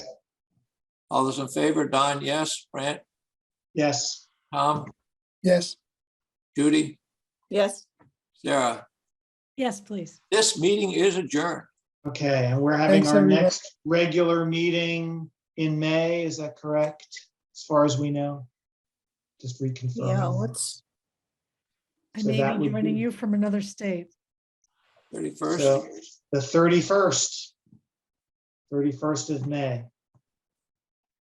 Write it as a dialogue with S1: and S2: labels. S1: All those in favor, Don, yes, Brant,
S2: Yes,
S1: Tom,
S3: Yes,
S1: Judy,
S4: Yes.
S1: Sarah.
S5: Yes, please.
S1: This meeting is adjourned.
S2: okay, and we're having
S3: Thanks,
S2: our
S3: everyone.
S2: next regular meeting in May, is that correct? As far as we know? Just
S4: Yeah,
S2: reconfirm.
S4: what's,
S5: I
S2: So
S5: may
S2: that
S5: be
S2: would
S5: joining
S2: be-
S5: you from another state.
S1: Thirty-first,
S2: So the thirty-first. Thirty-first of May.